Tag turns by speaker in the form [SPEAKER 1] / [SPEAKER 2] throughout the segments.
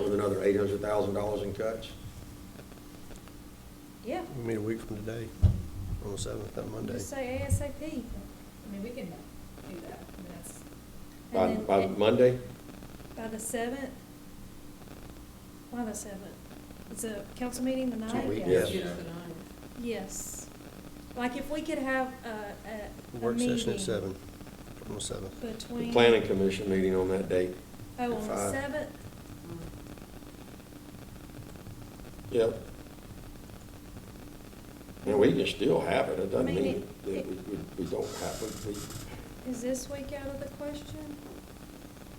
[SPEAKER 1] another eight hundred thousand dollars in cuts?
[SPEAKER 2] Yeah,
[SPEAKER 3] We meet a week from today, on the seventh, that Monday.
[SPEAKER 2] just say ASAP. I mean, we can do that, I mean, that's.
[SPEAKER 1] By,
[SPEAKER 2] and
[SPEAKER 1] by
[SPEAKER 2] then-
[SPEAKER 1] Monday?
[SPEAKER 2] By the seventh? Why the seventh? It's a council meeting the ninth?
[SPEAKER 1] weeks. Yes.
[SPEAKER 4] Yes.
[SPEAKER 2] Yes. Like if we could have a, a, a
[SPEAKER 3] Work session
[SPEAKER 2] meeting
[SPEAKER 3] at seven, on the seventh.
[SPEAKER 1] The
[SPEAKER 2] Between.
[SPEAKER 1] planning commission meeting on that date?
[SPEAKER 2] Oh,
[SPEAKER 1] at
[SPEAKER 2] on the
[SPEAKER 1] five.
[SPEAKER 2] seventh?
[SPEAKER 1] Yep. And we can still have it, it doesn't
[SPEAKER 2] I mean,
[SPEAKER 1] mean
[SPEAKER 2] it-
[SPEAKER 1] that
[SPEAKER 2] it-
[SPEAKER 1] we, we- we don't have, it. we,
[SPEAKER 2] Is this week out of the question?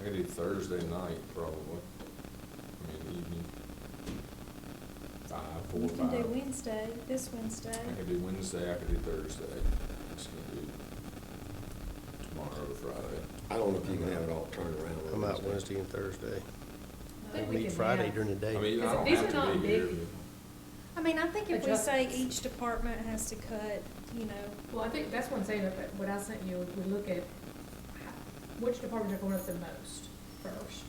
[SPEAKER 4] I could do Thursday night, probably. I mean, evening. Five, four,
[SPEAKER 2] You can
[SPEAKER 4] five.
[SPEAKER 2] do Wednesday, this Wednesday.
[SPEAKER 4] I could do Wednesday, I could do Thursday. It's gonna do tomorrow or Friday.
[SPEAKER 1] I don't know if you can have it all turned around. on
[SPEAKER 3] I'm out Wednesday and Thursday.
[SPEAKER 5] I think we
[SPEAKER 3] Meet
[SPEAKER 5] can
[SPEAKER 3] Friday
[SPEAKER 5] have-
[SPEAKER 3] during the day.
[SPEAKER 4] I mean, I
[SPEAKER 5] Because
[SPEAKER 4] don't
[SPEAKER 5] these
[SPEAKER 4] have
[SPEAKER 5] are
[SPEAKER 4] to
[SPEAKER 5] not
[SPEAKER 4] be here.
[SPEAKER 5] big-
[SPEAKER 2] I mean, I think if we say
[SPEAKER 5] Adjustments.
[SPEAKER 2] each department has to cut, you know,
[SPEAKER 5] Well, I think that's what I'm saying, but what I sent you, we look at how- which departments are going up the most first.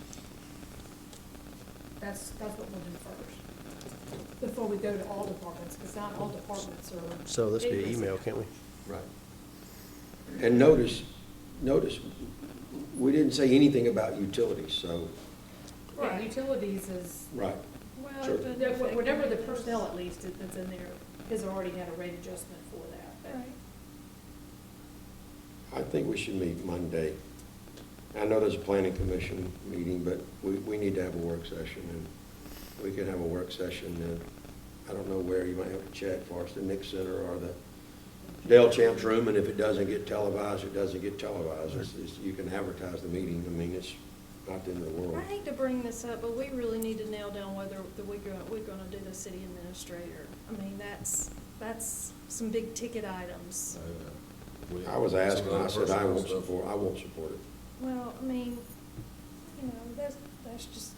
[SPEAKER 5] That's, that's what we'll do first, before we go to all departments, because not all departments are.
[SPEAKER 3] So this be
[SPEAKER 5] equal.
[SPEAKER 3] email, can't we?
[SPEAKER 1] Right. And notice, notice, we didn't say anything about utilities, so,
[SPEAKER 5] Yeah,
[SPEAKER 2] Right.
[SPEAKER 5] utilities is,
[SPEAKER 1] right.
[SPEAKER 2] well.
[SPEAKER 1] Sure.
[SPEAKER 2] it doesn't
[SPEAKER 5] that-
[SPEAKER 2] affect
[SPEAKER 5] whatever the
[SPEAKER 2] any of those.
[SPEAKER 5] personnel at least that- that's in there, has already had a rate adjustment for that. but-
[SPEAKER 2] Right.
[SPEAKER 1] I think we should meet Monday. I know there's a planning commission meeting, but we, we need to have a work session, and we could have a work session, and I don't know where, you might have to check for us, the Nick Center or the Dale Champs Room, and if it doesn't get televised, it doesn't get televised, it's, it's, you can advertise the meeting, I mean, it's not the end of the world.
[SPEAKER 2] I hate to bring this up, but we really need to nail down whether the- we're going, we're going to do the city administrator. I mean, that's, that's some big ticket items.
[SPEAKER 4] Uh, we-
[SPEAKER 1] I was asking, I said, I
[SPEAKER 4] Personnel
[SPEAKER 1] won't
[SPEAKER 4] stuff.
[SPEAKER 1] support, I won't support it.
[SPEAKER 2] Well, I mean, you know, that's, that's just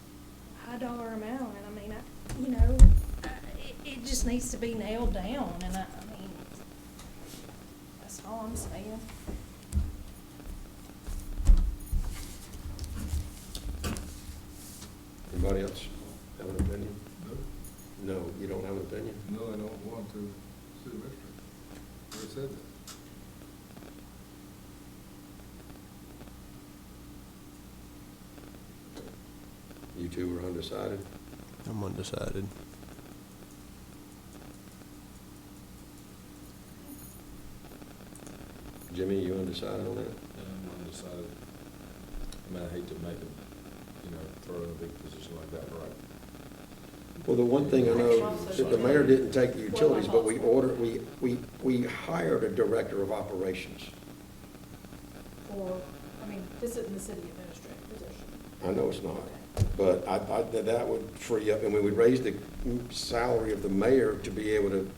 [SPEAKER 2] high dollar amount, and I mean, I, you know, I- it, it just needs to be nailed down, and I, I mean, that's all I'm saying.
[SPEAKER 1] Anybody else have an opinion? No, you don't have an opinion?
[SPEAKER 6] No, I don't want to see the mystery. Who said that?
[SPEAKER 1] You two were undecided?
[SPEAKER 3] I'm undecided.
[SPEAKER 1] Jimmy, you undecided on that?
[SPEAKER 4] Yeah, I'm undecided. I mean, I hate to make them, you know, throw in a big position like that, right?
[SPEAKER 1] Well, the one thing I know, that the mayor didn't take the
[SPEAKER 5] Well,
[SPEAKER 1] utilities, but we
[SPEAKER 5] also-
[SPEAKER 1] ordered, we, we, we hired a director of operations.
[SPEAKER 5] Or, I mean, this isn't the city administrator position.
[SPEAKER 1] I know it's not, but I, I, that that would free up, and we would raise the salary of the mayor to be able to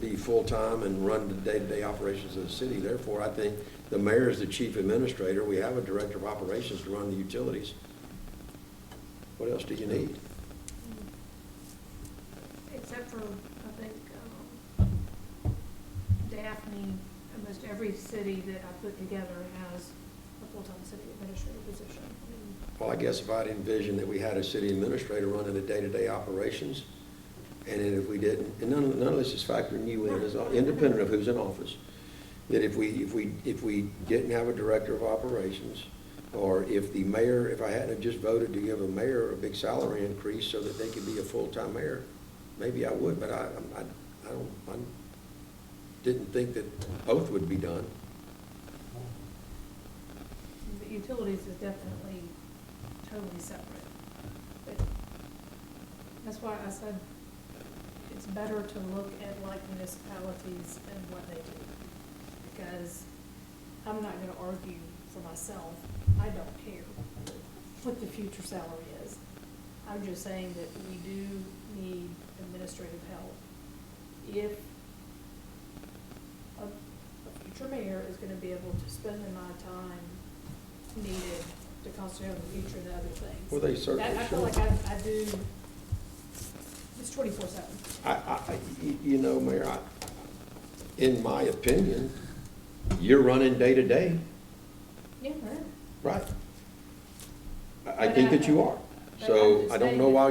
[SPEAKER 1] be full-time and run the day-to-day operations of the city. Therefore, I think the mayor is the chief administrator, we have a director of operations to run the utilities. What else do you need?
[SPEAKER 5] Except for, I think, um, Daphne, almost every city that I put together has a full-time city administrator position. I mean,
[SPEAKER 1] Well, I guess if I'd envisioned that we had a city administrator running the day-to-day operations, and then if we didn't, and none, none of this is factoring you in, it's all independent of who's in office, that if we, if we, if we didn't have a director of operations, or if the mayor, if I hadn't have just voted to give a mayor a big salary increase so that they could be a full-time mayor, maybe I would, but I, I, I don't, I didn't think that both would be done.
[SPEAKER 5] The utilities is definitely totally separate. But That's why I said it's better to look at like municipalities and what they do. Because I'm not gonna argue for myself, I don't care what the future salary is. I'm just saying that we do need administrative help. If a, a future mayor is gonna be able to spend the amount of time needed to concentrate on the future and other things.
[SPEAKER 1] Well, they certainly
[SPEAKER 5] That- I feel like
[SPEAKER 1] should.
[SPEAKER 5] I, I do, it's twenty-four seven.
[SPEAKER 1] I, I, I- y- you know, Mayor, I, in my opinion, you're running day to day,
[SPEAKER 5] Yeah, right.
[SPEAKER 1] right? I, I think that you are. So I don't know why